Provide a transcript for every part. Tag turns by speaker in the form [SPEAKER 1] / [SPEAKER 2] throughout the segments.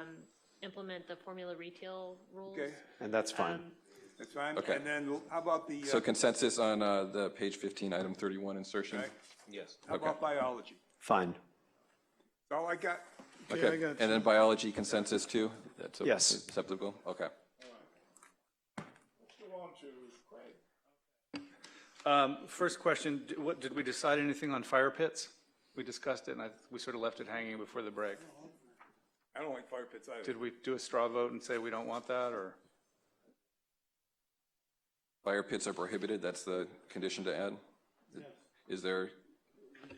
[SPEAKER 1] um, implement the formula retail rules.
[SPEAKER 2] Okay,
[SPEAKER 3] and that's fine.
[SPEAKER 2] that's fine.
[SPEAKER 4] Okay.
[SPEAKER 2] And then how about the,
[SPEAKER 4] So
[SPEAKER 2] uh,
[SPEAKER 4] consensus on uh, the page 15, item 31 insertion?
[SPEAKER 2] Right.
[SPEAKER 4] Yes.
[SPEAKER 2] how about biology?
[SPEAKER 3] Fine.
[SPEAKER 2] That's all I got.
[SPEAKER 5] Okay, I
[SPEAKER 4] Okay,
[SPEAKER 5] got
[SPEAKER 4] and then biology consensus too? That's a-
[SPEAKER 3] Yes.
[SPEAKER 4] Acceptable, okay.
[SPEAKER 6] Um, First question, d- what, did we decide anything on fire pits? We discussed it, and I, we sort of left it hanging before the break.
[SPEAKER 2] I don't like fire pits either.
[SPEAKER 6] Did we do a straw vote and say we don't want that, or?
[SPEAKER 4] Fire pits are prohibited, that's the condition to add? Is there,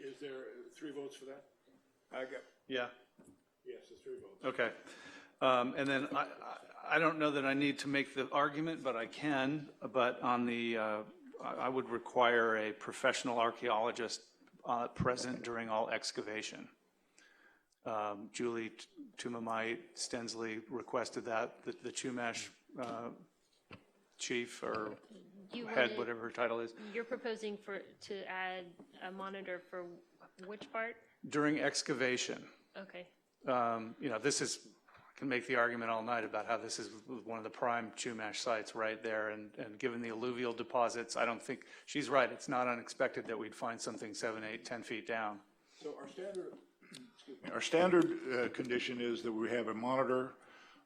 [SPEAKER 7] Is there uh, three votes for that?
[SPEAKER 2] I got,
[SPEAKER 6] Yeah,
[SPEAKER 7] Yes, there's three votes.
[SPEAKER 6] okay. Um, And then I, I- I don't know that I need to make the argument, but I can, but on the, uh, I I would require a professional archaeologist uh, present during all excavation. Um, Julie T- Tumamite Stensley requested that, the- the Chumash uh, chief or
[SPEAKER 1] You
[SPEAKER 6] head,
[SPEAKER 1] wanted-
[SPEAKER 6] whatever her title is,
[SPEAKER 1] You're proposing for, to add a monitor for which part?
[SPEAKER 6] during excavation.
[SPEAKER 1] Okay,
[SPEAKER 6] Um, You know, this is, I can make the argument all night about how this is one of the prime Chumash sites right there, and, and given the alluvial deposits, I don't think, she's right, it's not unexpected that we'd find something seven, eight, 10 feet down.
[SPEAKER 7] So our standard, our standard uh, condition is that we have a monitor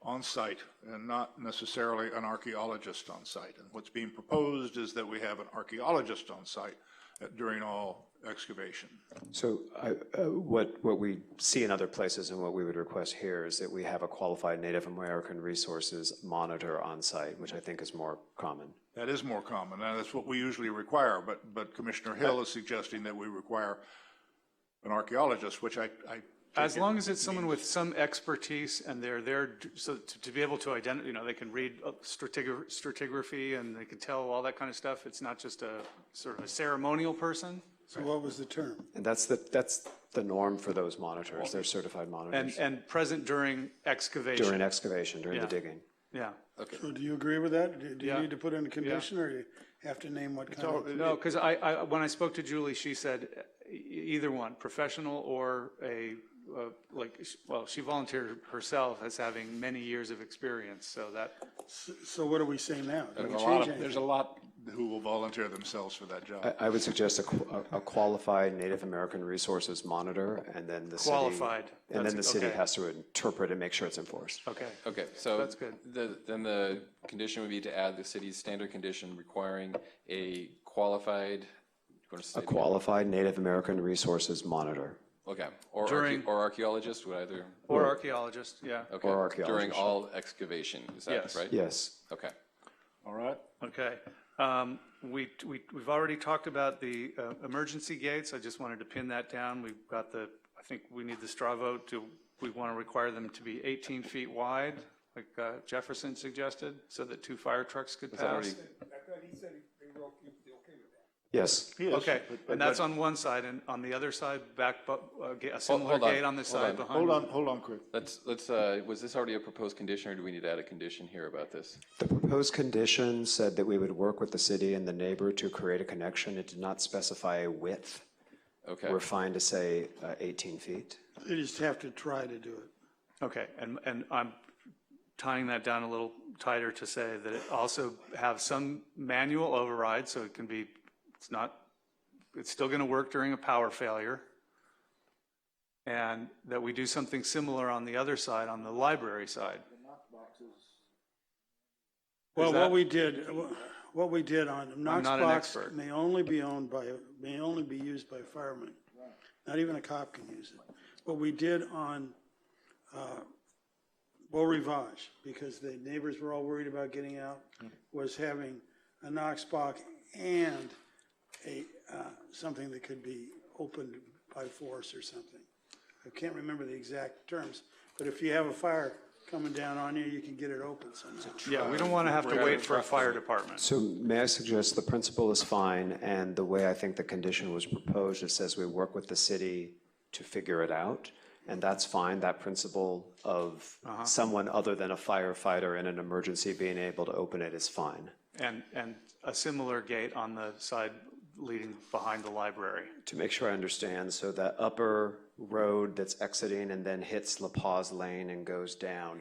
[SPEAKER 7] on site and not necessarily an archaeologist on site. And what's being proposed is that we have an archaeologist on site uh, during all excavation.
[SPEAKER 3] So I- uh, what, what we see in other places and what we would request here is that we have a qualified Native American resources monitor on site, which I think is more common.
[SPEAKER 7] That is more common, and that's what we usually require, but, but Commissioner Hill is suggesting that we require an archaeologist, which I, I.
[SPEAKER 6] As long as it's someone with some expertise and they're there, d- so to, to be able to identify, you know, they can read uh, stratigra- stratigraphy and they can tell all that kind of stuff, it's not just a sort of a ceremonial person.
[SPEAKER 5] So what was the term?
[SPEAKER 3] And that's the, that's the norm for those monitors. They're certified
[SPEAKER 6] And,
[SPEAKER 3] monitors
[SPEAKER 6] and present during excavation.
[SPEAKER 3] during excavation, during the
[SPEAKER 6] Yeah.
[SPEAKER 3] digging.
[SPEAKER 6] Yeah.
[SPEAKER 5] So do you agree with that? Do do you
[SPEAKER 6] Yeah.
[SPEAKER 5] need to put in a condition, or you have to name what kind of?
[SPEAKER 6] No, because I, I, when I spoke to Julie, she said e- either one, professional or a, uh, like, well, she volunteered herself as having many years of experience, so that,
[SPEAKER 5] So what are we saying now? Do we
[SPEAKER 7] A lot
[SPEAKER 5] change
[SPEAKER 7] of- There's
[SPEAKER 5] anything?
[SPEAKER 7] a lot who will volunteer themselves for that job.
[SPEAKER 3] I- I would suggest a qu- a a qualified Native American resources monitor, and then the city.
[SPEAKER 6] Qualified.
[SPEAKER 3] And then the
[SPEAKER 6] That's-
[SPEAKER 3] city
[SPEAKER 6] okay.
[SPEAKER 3] has to interpret and make sure it's enforced.
[SPEAKER 6] okay.
[SPEAKER 4] Okay, so.
[SPEAKER 6] That's good.
[SPEAKER 4] the- Then the condition would be to add the city's standard condition requiring a qualified, you want to say?
[SPEAKER 3] A qualified Native American resources monitor
[SPEAKER 4] Okay, or archae-
[SPEAKER 6] During-
[SPEAKER 4] or archaeologist would either,
[SPEAKER 6] Or archaeologist, yeah,
[SPEAKER 4] okay. During
[SPEAKER 3] archaeologist.
[SPEAKER 4] all excavation, is that
[SPEAKER 6] Yes.
[SPEAKER 4] right?
[SPEAKER 3] Yes.
[SPEAKER 4] Okay,
[SPEAKER 7] All right?
[SPEAKER 6] okay. Um, We, we, we've already talked about the uh, emergency gates, I just wanted to pin that down. We've got the, I think we need the straw vote, do we want to require them to be 18 feet wide, like uh, Jefferson suggested, so that two fire trucks could
[SPEAKER 4] that
[SPEAKER 6] pass?
[SPEAKER 4] already-
[SPEAKER 2] I thought he said they were okay they okay with that.
[SPEAKER 3] Yes.
[SPEAKER 6] Okay, and that's on one side, and on the other side, back, bu- uh, ga- a similar
[SPEAKER 4] hold on,
[SPEAKER 6] gate on the
[SPEAKER 4] hold on.
[SPEAKER 6] side behind.
[SPEAKER 7] Hold on, hold on, Chris.
[SPEAKER 4] let's, let's, uh, was this already a proposed condition or do we need to add a condition here about this?
[SPEAKER 3] The proposed condition said that we would work with the city and the neighbor to create a connection. It did not specify a width.
[SPEAKER 4] Okay.
[SPEAKER 3] We're fine to say uh, 18 feet.
[SPEAKER 5] You just have to try to do it.
[SPEAKER 6] Okay, and, and I'm tying that down a little tighter to say that it also have some manual override, so it can be, it's not, it's still going to work during a power failure. And that we do something similar on the other side, on the library side.
[SPEAKER 5] Well,
[SPEAKER 6] that-
[SPEAKER 5] what we did, what we did on Knox
[SPEAKER 6] not an
[SPEAKER 5] Box
[SPEAKER 6] expert.
[SPEAKER 5] may only be owned by, may only be used by firemen. Not even a cop can use it. What we did on uh, Beau Rivage, because the neighbors were all worried about getting out, was having a Knox Box and a, uh, something that could be opened by force or something. I can't remember the exact terms, but if you have a fire coming down on you, you can get it open somehow.
[SPEAKER 6] Yeah, we don't want to have to wait for a fire department.
[SPEAKER 3] So may I suggest the principle is fine, and the way I think the condition was proposed, it says we work with the city to figure it out, and that's fine, that principle of someone other than a firefighter in an emergency being able to open it is fine.
[SPEAKER 6] And, and a similar gate on the side leading behind the library.
[SPEAKER 3] To make sure I understand, so that upper road that's exiting and then hits La Paz Lane and goes down,